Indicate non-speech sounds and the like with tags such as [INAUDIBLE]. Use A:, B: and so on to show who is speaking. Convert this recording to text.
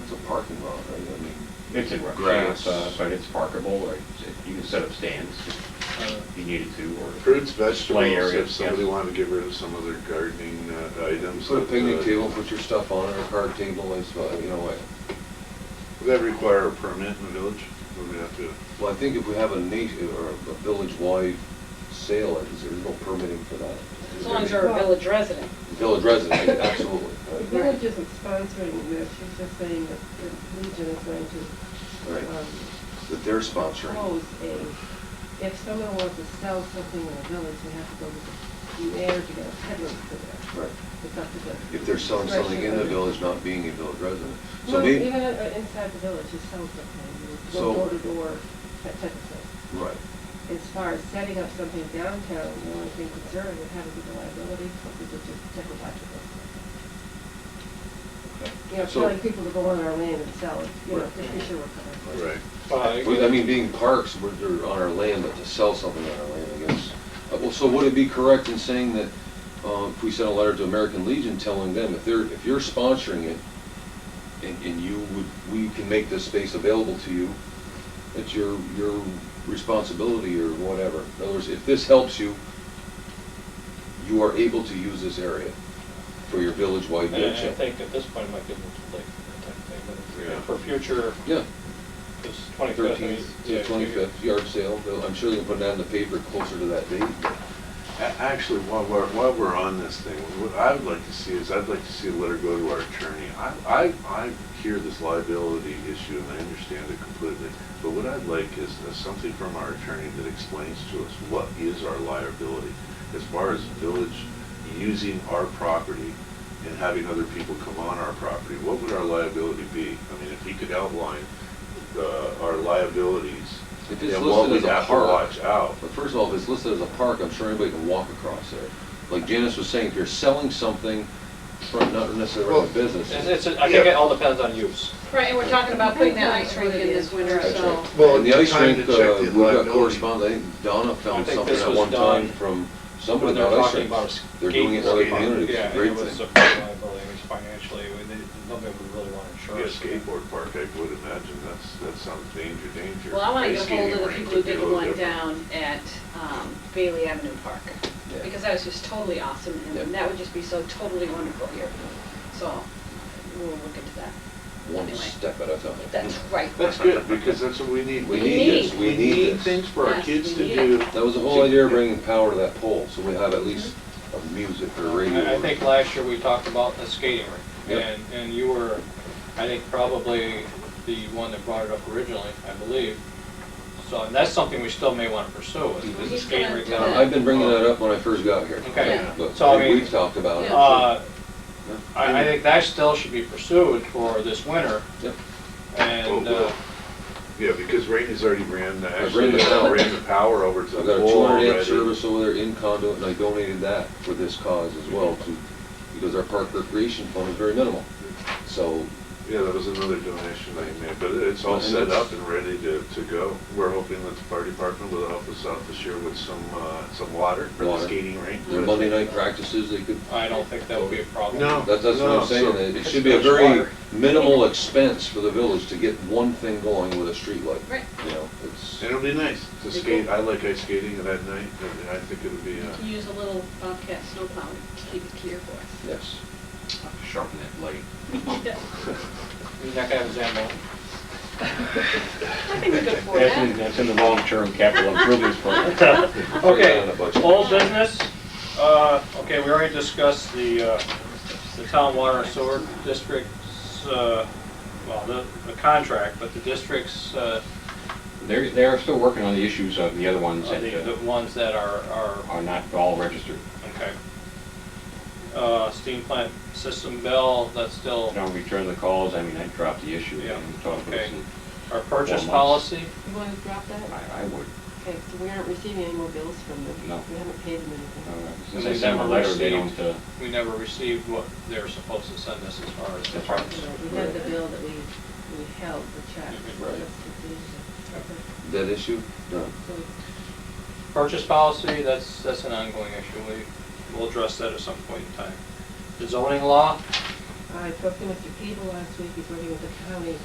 A: parking lot, right? I mean,
B: It's in rough
A: Grass.
B: shape, uh, but it's parkable, or it's- you can set up stands
C: Uh,
B: if you needed to, or,
D: Fruits, vegetables,
B: Play area,
D: if somebody
B: yes.
D: wanted to get rid of some of their gardening uh, items.
A: Put a picnic
D: uh,
A: table, put your stuff on it, a card table, it's, uh, you know, what.
D: Would that require a permit in the village? Would we have to,
A: well, I think if we have a nation, or a village-wide sale, is there no permitting for that?
E: As long as you're a village resident.
A: Village resident, absolutely.
F: The village isn't sponsoring this, she's just saying that the Legion is going
A: Right.
F: to
E: uh,
F: um,
A: That they're sponsoring.
E: Oh.
F: propose a, if someone wants to sell something in the village, they have to go to the mayor to get a peddler for that.
A: Right.
F: It's up to the.
A: If they're selling something in the
F: discretion of
A: village, not being a village resident.
F: the-
A: So
F: Well,
A: maybe.
F: even uh, inside the village, you sell something, you
A: So-
F: go door to door, that type of thing.
A: Right.
F: As far as setting up something downtown, the only thing concerned would have to be the liability, which is just technological. You know,
A: So-
F: telling people to go on our land and sell it, you know, just be sure we're covered.
D: right?
A: Well, I mean, being parks, we're, they're on our land, but to sell something on our land, I guess. Uh, Well, so would it be correct in saying that, uh, if we sent a letter to American Legion telling them, if they're, if you're sponsoring it, and, and you would, we can make this space available to you, it's your, your responsibility or whatever. In other words, if this helps you, you are able to use this area for your village-wide
C: And
A: event.
C: I I think at this point, it might give them too late for that type of thing, but
D: Yeah.
C: if- for future,
A: Yeah.
C: this twenty-fifth.
A: Thirteenth to twenty-fifth, yard sale, They'll- I'm sure they'll put that in the paper closer to that date.
D: A- Actually, while we're, while we're on this thing, what I would like to see is, I'd like to see a letter go to our attorney. I, I, I hear this liability issue and I understand it completely, but what I'd like is uh, something from our attorney that explains to us what is our liability as far as village using our property and having other people come on our property, what would our liability be? I mean, if he could outline, uh, our liabilities
A: If it's
D: and what
A: listed
D: we
A: as a
D: have to
A: park.
D: watch out.
A: But first of all, if it's listed as a park, I'm sure anybody can walk across there. Like Janice was saying, if you're selling something, from- not necessarily from a business.
C: It's, it's, I think it all depends on use.
E: Right, and we're talking about putting that ice rink in this winter,
A: That's
E: so.
A: right.
D: Well,
A: And the ice
D: time
A: rink,
D: to check
A: uh,
D: the
A: we got
D: liability.
A: correspondence, I think Donna found
C: think
A: something
C: this
A: at
C: was
A: one time
C: done
A: from somebody
C: When they're
A: about ice
C: talking about
A: rinks. They're doing it in
C: skate
A: other
D: park.
A: communities,
C: Yeah,
A: it's a
C: and
A: great
C: it was a
A: thing.
C: liability, which financially, we- they- nobody would really want
D: Be a
C: insurance.
D: skateboard park, I would imagine, that's, that sounds danger, danger.
E: Well, I want to
D: Ice
E: get
D: skating
E: hold of
D: rink
E: the people who
D: would be a
E: did the
D: little
E: one
D: different.
E: down at um, Bailey Avenue Park,
A: Yeah.
E: because that was just totally awesome,
A: Yeah.
E: and that would just be so totally wonderful here. So we'll look into that.
A: One
E: Anyway,
A: step at a time.
E: That's right.
D: That's good, because that's what we need.
A: We
E: need this,
A: we need this.
D: things for our
E: Yes,
D: kids
E: we
D: to
E: need
D: do.
A: That was the whole idea of bringing power to that pole, so we have at least a music or radio.
C: I I think last year we talked about the skating rink,
A: Yep.
C: and, and you were, I think, probably the one that brought it up originally, I believe. So, and that's something we still may want to pursue, is- is the
E: He's
C: skating
E: gonna
C: rink.
E: do
C: down-
A: Uh, I've been bringing that up when I first got here.
C: Okay.
E: Yeah.
A: But
C: So, I mean-
A: we've talked about it.
C: Uh,
A: Yeah.
C: I, I think that still should be pursued for this winter,
A: Yep.
C: and,
D: Oh,
C: uh,
D: well. Yeah, because Rainey's already ran, the- actually,
A: ran the power.
D: ran the power over to
A: I've
D: the
A: got a
D: pole
A: 200 amp
D: already.
A: service over there in conduit, and I donated that for this cause as well, to, because our park recreation fund is very minimal. So,
D: Yeah, that was another donation I made, but it's all
A: And
D: set
A: that's-
D: up and ready to, to go. We're hoping that the fire department will help us out this year with some, uh, some water for the
A: Water.
D: skating rink.
A: their Monday night practices, they could,
C: I don't think that would be a problem.
D: No.
A: that's, that's what
D: No,
A: I'm saying,
D: so-
A: that it should be a
C: Because there's
A: very
C: water.
A: minimal expense for the village to get one thing going with a street light.
E: Right.
A: You know, it's,
D: It'll be nice to skate. I like ice skating at night, and I think it'll be, uh,
E: To use a little Bobcat snowplow to keep it clear for
A: yes.
B: sharpen that blade.
E: us. Yeah,
C: You're not gonna have a Zambo.
E: [LAUGHS] I think we're good for
B: That's in,
E: that.
B: that's in the long-term capital improvements program.
A: On the
C: Okay,
A: budget.
C: old business, uh, okay, we already discussed the, uh, the town water and sewer districts, uh, well, the, the contract, but the districts, uh,
B: They're, they're still working on the issues of the other ones
C: are the,
B: that
C: the
B: uh,
C: ones that are, are,
B: are not all registered.
C: okay. Uh, steam plant system bill, that's still
B: Don't return the calls, I mean, I dropped the issue.
C: Yeah,
B: and talked to
C: okay.
B: some-
C: our purchase
B: Four months.
C: policy.
F: You want to drop that?
B: I, I would,
F: Okay, so we aren't receiving any more bills from them?
B: No.
F: We haven't paid them
B: uh,
F: anything?
B: since
C: And
B: I
C: they
B: sent them a
C: never
B: letter, they
C: received-
B: don't, uh,
C: We never received what they're supposed to send us as far as.
B: That's right.
F: Yeah, We had the bill that we, we held, the check.
A: Right.
F: That's the issue.
A: That issue? No.
F: So
C: Purchase policy, that's, that's an ongoing issue, we, we'll address that at some point in time. The zoning law,
F: I spoke to Mr. Cable last week, he's working with the county